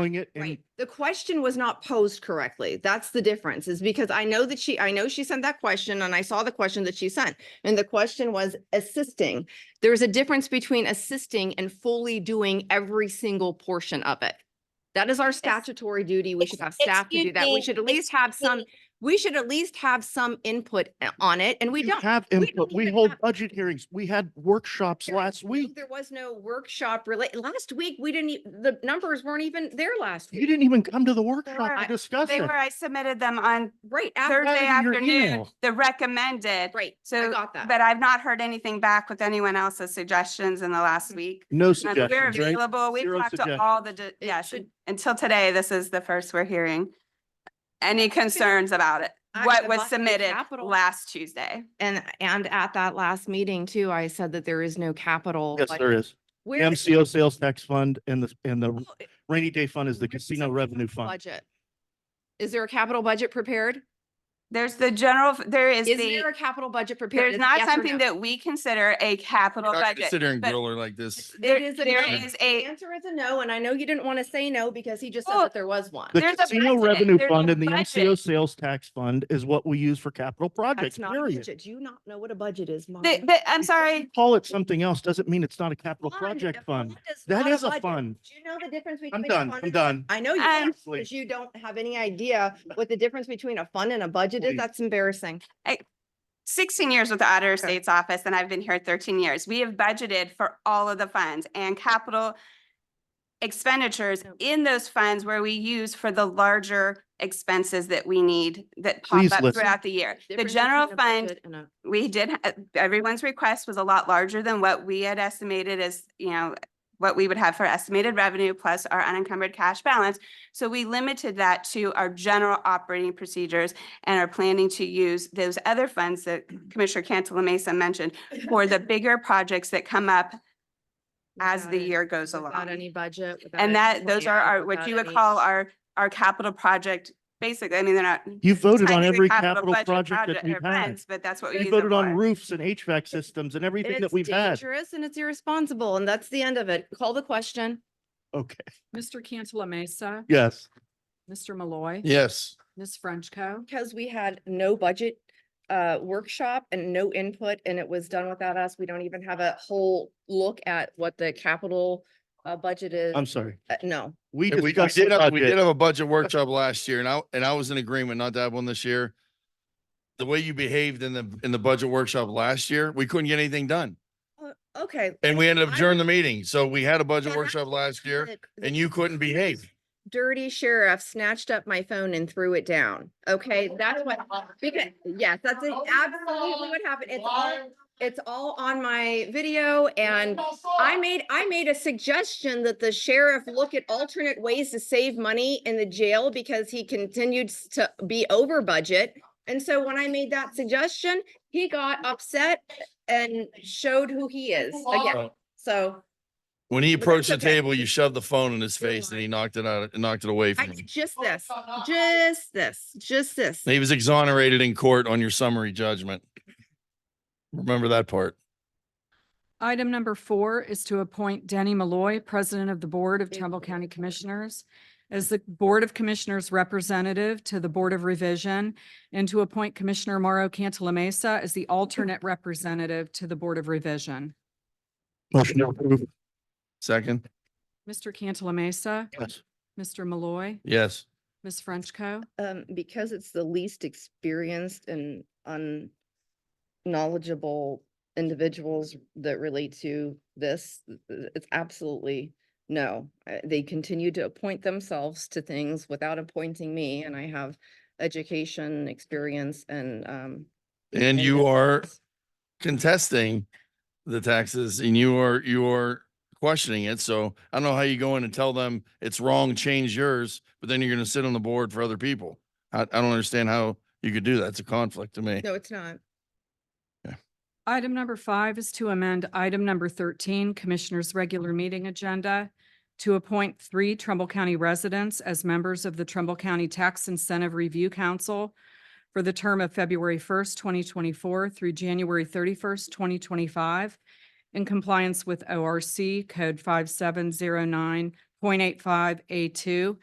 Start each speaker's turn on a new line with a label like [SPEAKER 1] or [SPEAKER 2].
[SPEAKER 1] doing it and
[SPEAKER 2] Right. The question was not posed correctly. That's the difference is because I know that she, I know she sent that question and I saw the question that she sent. And the question was assisting. There's a difference between assisting and fully doing every single portion of it. That is our statutory duty. We should have staff to do that. We
[SPEAKER 3] Excuse
[SPEAKER 2] should at
[SPEAKER 3] me,
[SPEAKER 2] least have some, we should at least have some input uh, on it and we
[SPEAKER 1] you
[SPEAKER 2] don't.
[SPEAKER 1] have
[SPEAKER 2] we
[SPEAKER 1] input.
[SPEAKER 2] don't
[SPEAKER 1] We
[SPEAKER 2] even
[SPEAKER 1] hold
[SPEAKER 2] have-
[SPEAKER 1] budget hearings. We had workshops
[SPEAKER 2] There-
[SPEAKER 1] last
[SPEAKER 2] no,
[SPEAKER 1] week.
[SPEAKER 2] There was no workshop related. Last week, we didn't, e- the numbers weren't even there last
[SPEAKER 1] You
[SPEAKER 2] week.
[SPEAKER 1] didn't even come to the workshop
[SPEAKER 2] were-
[SPEAKER 1] to discuss
[SPEAKER 4] They
[SPEAKER 1] it.
[SPEAKER 4] were, I submitted them on
[SPEAKER 2] Right after,
[SPEAKER 4] Thursday
[SPEAKER 1] in your
[SPEAKER 4] afternoon,
[SPEAKER 1] email.
[SPEAKER 4] the recommended.
[SPEAKER 2] right. I
[SPEAKER 4] So,
[SPEAKER 2] got that.
[SPEAKER 4] but I've not heard anything back with anyone else's suggestions in the
[SPEAKER 2] Mm-hmm.
[SPEAKER 4] last week.
[SPEAKER 1] No
[SPEAKER 4] Um, We're
[SPEAKER 1] suggestions, right?
[SPEAKER 4] available. We've
[SPEAKER 1] Zero
[SPEAKER 4] talked to
[SPEAKER 1] suggestions.
[SPEAKER 4] all the, di- yes,
[SPEAKER 2] should-
[SPEAKER 4] until today, this is the first we're hearing. Any concerns about it?
[SPEAKER 2] I-
[SPEAKER 4] What
[SPEAKER 2] the
[SPEAKER 4] was
[SPEAKER 2] Buckley
[SPEAKER 4] submitted
[SPEAKER 2] Capital-
[SPEAKER 4] last Tuesday?
[SPEAKER 2] And, and at that last meeting too, I said that there is no capital.
[SPEAKER 1] Yes,
[SPEAKER 2] like,
[SPEAKER 1] there is.
[SPEAKER 2] where is-
[SPEAKER 1] MCO sales tax fund and the, and the
[SPEAKER 2] oh, it-
[SPEAKER 1] rainy day fund is the
[SPEAKER 2] where does
[SPEAKER 1] casino
[SPEAKER 2] it
[SPEAKER 1] revenue fund.
[SPEAKER 2] Budget. Is there a capital budget prepared?
[SPEAKER 4] There's the general, there is
[SPEAKER 2] Is there
[SPEAKER 4] the,
[SPEAKER 2] a capital budget prepared?
[SPEAKER 4] there's
[SPEAKER 2] Is-
[SPEAKER 4] not
[SPEAKER 2] yes or no?
[SPEAKER 4] something that we consider a capital
[SPEAKER 5] We're not
[SPEAKER 4] budget.
[SPEAKER 5] Considering
[SPEAKER 4] but
[SPEAKER 5] griller like this.
[SPEAKER 2] There
[SPEAKER 4] There,
[SPEAKER 2] is a
[SPEAKER 4] there
[SPEAKER 2] no.
[SPEAKER 4] is
[SPEAKER 2] The
[SPEAKER 4] a,
[SPEAKER 2] answer is a no, and I know you didn't want to say no because he just said
[SPEAKER 4] Oh,
[SPEAKER 2] that there was one.
[SPEAKER 1] The
[SPEAKER 4] there's a
[SPEAKER 1] casino
[SPEAKER 4] budget,
[SPEAKER 1] revenue
[SPEAKER 4] there's a
[SPEAKER 1] fund and the
[SPEAKER 4] budget.
[SPEAKER 1] MCO sales tax fund is what we use for capital projects,
[SPEAKER 2] That's not a
[SPEAKER 1] period.
[SPEAKER 2] budget. Do you not know what a budget is, Mom?
[SPEAKER 4] the- but I'm
[SPEAKER 1] Because you
[SPEAKER 4] sorry,
[SPEAKER 1] Call it something else doesn't mean it's not a capital
[SPEAKER 2] Fund,
[SPEAKER 1] project
[SPEAKER 2] a
[SPEAKER 1] fund.
[SPEAKER 2] is
[SPEAKER 1] That
[SPEAKER 2] not
[SPEAKER 1] is a
[SPEAKER 2] budget.
[SPEAKER 1] fund.
[SPEAKER 2] Do you know the difference between?
[SPEAKER 1] I'm
[SPEAKER 2] a
[SPEAKER 1] done,
[SPEAKER 2] fund
[SPEAKER 1] I'm
[SPEAKER 2] and a-
[SPEAKER 1] done.
[SPEAKER 2] I know you
[SPEAKER 4] Um,
[SPEAKER 2] don't, because you don't have any idea what the difference between a fund and a budget is.
[SPEAKER 1] Please.
[SPEAKER 2] That's embarrassing.
[SPEAKER 4] 16 years with the Auditor of
[SPEAKER 2] Okay.
[SPEAKER 4] State's Office, and I've been here 13 years. We have budgeted for all of the funds and capital expenditures
[SPEAKER 2] Yep.
[SPEAKER 4] in those funds where we use for the larger expenses that we need that pop
[SPEAKER 1] Please
[SPEAKER 4] up
[SPEAKER 1] listen.
[SPEAKER 4] throughout the year. The
[SPEAKER 2] Difference
[SPEAKER 4] general
[SPEAKER 2] between a
[SPEAKER 4] fund,
[SPEAKER 2] budget and a-
[SPEAKER 4] we did, ha- uh, everyone's request was a lot larger than what we had estimated as, you know, what we would have for estimated revenue plus our unencumbered cash balance. So we limited that to our general operating procedures and are planning to use those other funds that
[SPEAKER 2] Mm-hmm.
[SPEAKER 4] Commissioner Cantala Mesa mentioned for the bigger projects that come up as
[SPEAKER 2] without
[SPEAKER 4] the
[SPEAKER 2] it-
[SPEAKER 4] year goes
[SPEAKER 2] Without
[SPEAKER 4] along.
[SPEAKER 2] any budget. without any
[SPEAKER 4] And that, those are
[SPEAKER 2] plan,
[SPEAKER 4] our, what
[SPEAKER 2] without
[SPEAKER 4] you would
[SPEAKER 2] any-
[SPEAKER 4] call our, our capital project, basically, I mean, they're not.
[SPEAKER 1] You voted on
[SPEAKER 4] technically
[SPEAKER 1] every capital
[SPEAKER 4] budget
[SPEAKER 1] project that we've
[SPEAKER 4] or
[SPEAKER 1] had.
[SPEAKER 4] funds, But that's what we use
[SPEAKER 1] We
[SPEAKER 4] it
[SPEAKER 1] voted on
[SPEAKER 4] for.
[SPEAKER 1] roofs and HVAC systems and
[SPEAKER 2] And
[SPEAKER 1] everything that
[SPEAKER 2] it's
[SPEAKER 1] we've had.
[SPEAKER 2] dangerous and it's irresponsible and that's the end of it. Call the question.
[SPEAKER 1] Okay,
[SPEAKER 6] Mr. Cantala Mesa,
[SPEAKER 1] yes.
[SPEAKER 6] Mr. Malloy,
[SPEAKER 5] Yes.
[SPEAKER 6] Ms. Frenchco.
[SPEAKER 2] Because we had no budget uh workshop and no input and it was done without us. We don't even have a whole look at what the capital uh budget is.
[SPEAKER 1] I'm sorry.
[SPEAKER 2] Uh, No.
[SPEAKER 1] We
[SPEAKER 5] We we
[SPEAKER 1] discussed the
[SPEAKER 5] did have, we did
[SPEAKER 1] budget.
[SPEAKER 5] have a budget workshop last year and I, and I was in agreement not to have one this year. The way you behaved in the, in the budget workshop last year, we couldn't get anything done.
[SPEAKER 2] Uh, Okay.
[SPEAKER 5] And we ended up
[SPEAKER 2] I
[SPEAKER 5] during the meeting. So we had a budget
[SPEAKER 2] Yeah,
[SPEAKER 5] workshop last year
[SPEAKER 2] Look,
[SPEAKER 5] and you couldn't behave.
[SPEAKER 2] Dirty sheriff snatched up my phone and threw it down. Okay, that's what, because, yes, that's absolutely what happened. It's all, it's all on my video and I made, I made a suggestion that the sheriff look at alternate ways to save money in the jail because he continued s- to be over budget. And so when I made that suggestion, he got upset and showed who he is again.
[SPEAKER 5] Right.
[SPEAKER 2] So
[SPEAKER 5] When he
[SPEAKER 2] that's
[SPEAKER 5] approached the
[SPEAKER 2] okay.
[SPEAKER 5] table, you shoved the phone in his
[SPEAKER 2] You're
[SPEAKER 5] face and
[SPEAKER 2] lying.
[SPEAKER 5] he knocked it out, knocked it away
[SPEAKER 2] I,
[SPEAKER 5] from him.
[SPEAKER 2] just this, just this, just this.
[SPEAKER 5] He was exonerated in court on your summary judgment. Remember that part.
[SPEAKER 6] Item number four is to appoint Denny Malloy, President of the Board of Trumbull County Commissioners, as the Board of Commissioners representative to the Board of Revision, and to appoint Commissioner Mauro Cantala Mesa as the alternate representative to the Board of Revision.
[SPEAKER 1] Motion to approve.
[SPEAKER 5] Second?
[SPEAKER 6] Mr. Cantala Mesa,
[SPEAKER 1] Yes.
[SPEAKER 6] Mr. Malloy,
[SPEAKER 5] Yes.
[SPEAKER 6] Ms. Frenchco.
[SPEAKER 2] Um, because it's the least experienced and un- knowledgeable individuals that relate to this, th- th- it's absolutely no. Uh, They continue to appoint themselves to things without appointing me, and I have education, experience, and, um.
[SPEAKER 5] And you are
[SPEAKER 2] it's-
[SPEAKER 5] contesting the taxes and you are, you are questioning it. So I don't know how you go in and tell them it's wrong, change yours, but then you're going to sit on the board for other people. I, I don't understand how you could do that. It's a conflict to me.
[SPEAKER 2] No, it's not.
[SPEAKER 6] Item number five is to amend item number thirteen, Commissioners' Regular Meeting Agenda to appoint three Trumbull County residents as members of the Trumbull County Tax Incentive Review Council for the term of February first, twenty twenty-four through January thirty-first, twenty twenty-five in compliance with ORC Code five seven zero nine point eight five A two